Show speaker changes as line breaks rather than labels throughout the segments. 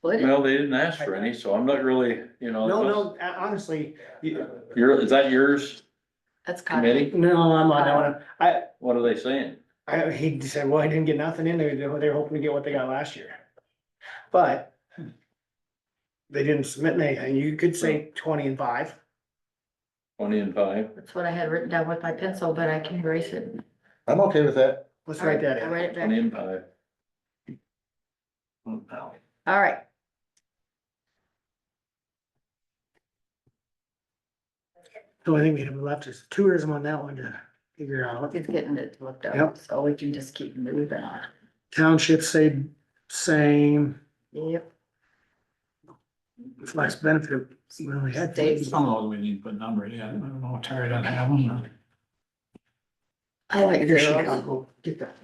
split it.
Well, they didn't ask for any, so I'm not really, you know.
No, no, uh, honestly, you-
Your, is that yours
That's kind of,
committee?
no, I'm on that one. I,
What are they saying?
I, he said, well, I didn't get nothing in there, they're, they're hoping to get what they got last year. But. They didn't submit anything, you could say twenty and five,
Twenty and five?
that's what I had written down with my pencil, but I can erase it.
I'm okay with that.
let's write that
I
in.
write it
Twenty
back.
and five.
All right.
So I think we have left is tourism on that one to figure out.
It's getting it looked up,
Yep.
so we can just keep moving on.
Townships say same,
Yep.
flex benefit, really had.
States.
Some of those we need to put numbers in, I don't know, Terry doesn't have them.
I like
Your
zeros.
Chicago, Get that.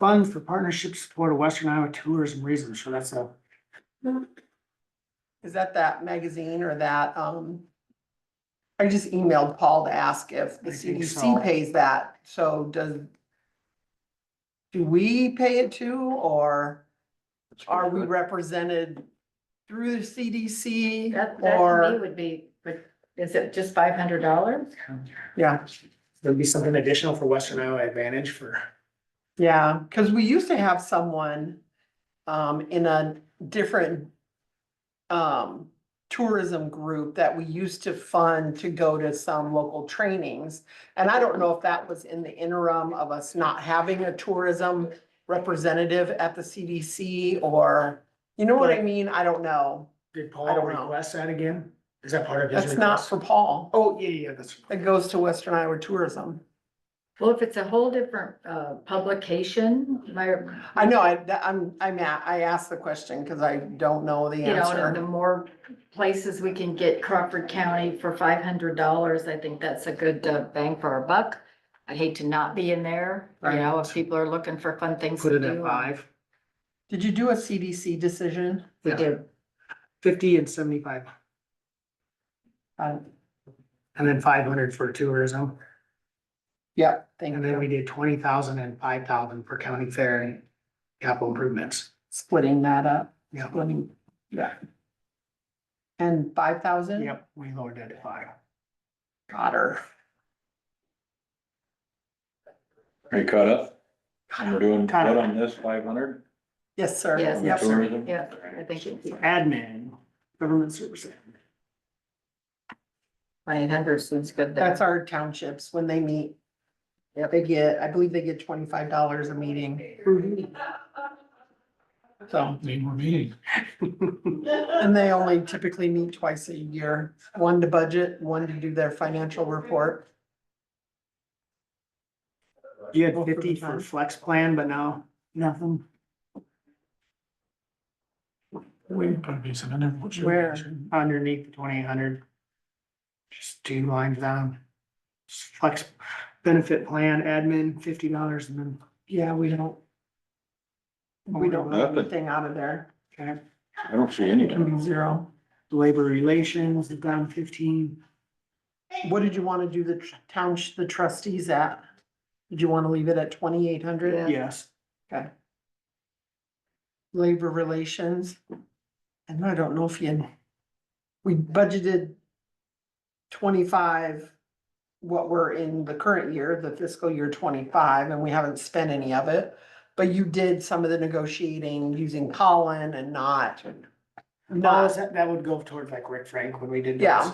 Funds for partnership support of Western Iowa tourism reasons, so that's a.
Is that that magazine or that, um? I just emailed Paul to ask if the
I think so.
CDC pays that, so does. Do we pay it too, or are we represented through the CDC
That, that to me
or,
would be, but is it just five hundred dollars?
yeah,
There'd be something additional for Western Iowa Advantage for.
yeah, cause we used to have someone. Um, in a different. Um, tourism group that we used to fund to go to some local trainings. And I don't know if that was in the interim of us not having a tourism representative at the CDC or, you know what I mean? I don't know.
Did
I
Paul
don't know.
request that again? Is that part of his?
That's not
request?
for Paul.
Oh, yeah, yeah, that's.
It goes to Western Iowa Tourism.
Well, if it's a whole different, uh, publication, my.
I know, I, that- I'm, I'm, a- I asked the question because I don't know the
You know, and the
answer.
more places we can get Crawford County for five hundred dollars, I think that's a good uh, bang for our buck. I'd hate to not be in there, you know, if people are looking for fun things
Put
to
it at
do.
five,
Did you do a CDC decision?
We
Yeah.
do,
fifty and seventy-five,
Uh,
and then five hundred for tourism.
Yep, thank
And then we
you.
did twenty thousand and five thousand for county fair and capital improvements.
Splitting that up,
Yeah.
splitting, yeah. And five thousand?
Yep, we lowered that to five.
Got her.
Are you caught up?
Got
We're
her.
doing
Kinda.
what on this, five hundred?
Yes, sir.
Yes.
Yep.
Tourism?
yeah, I think it's
Admin, government services.
five hundred seems good there.
That's our townships when they meet. Yeah, they get, I believe they get twenty-five dollars a meeting. So,
Need more meetings.
and they only typically meet twice a year, one to budget, one to do their financial report.
You had fifty for flex plan, but now nothing.
We put a piece of it in. What's your
Where?
picture?
underneath the twenty-eight hundred. Just two lines down. Flex benefit plan admin, fifty dollars and then,
Yeah, we don't.
Oh,
We don't have anything out of there.
okay,
I don't see
It
anything.
can be zero.
labor relations, down fifteen.
What did you wanna do the tr- town, the trustees at? Did you wanna leave it at twenty-eight
Yeah.
hundred?
Yes,
labor relations. And I don't know if you, we budgeted twenty-five, what we're in the current year, the fiscal year twenty-five, and we haven't spent any of it. But you did some of the negotiating using Colin and not,
no,
not,
that, that would go towards like Rick Frank when we did. those,
Yeah.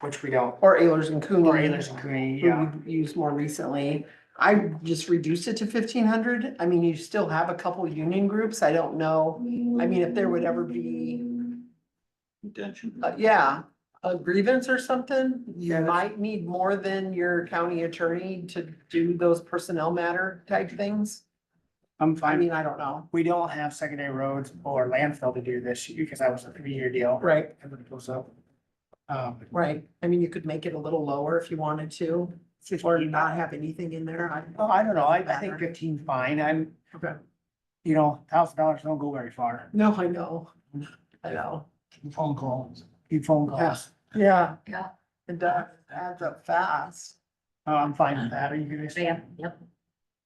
Which we don't,
or Ayers and Cooney.
or Ayers and Cooney, yeah,
who we used more recently. I just reduced it to fifteen hundred. I mean, you still have a couple union groups. I don't know. I mean, if there would ever be
Intention.
Uh, yeah, a grievance or something, you
Yeah, that's-
might need more than your county attorney to do those personnel matter type things.
I'm
I
fine.
mean, I don't know.
We don't have secondary roads or landfill to do this year because that was a three-year deal.
Right.
And then it goes up. Um,
Right, I mean, you could make it a little lower if you wanted to, or not have anything in there. I-
Oh, I don't know, I, I think fifteen's fine, I'm.
Okay.
You know, thousand dollars don't go very far,
No, I know, I know,
Phone calls.
Few phone calls,
yeah.
Yeah.
It does, adds up fast.
Oh, I'm fine with that, are you guys?
Yeah, yep.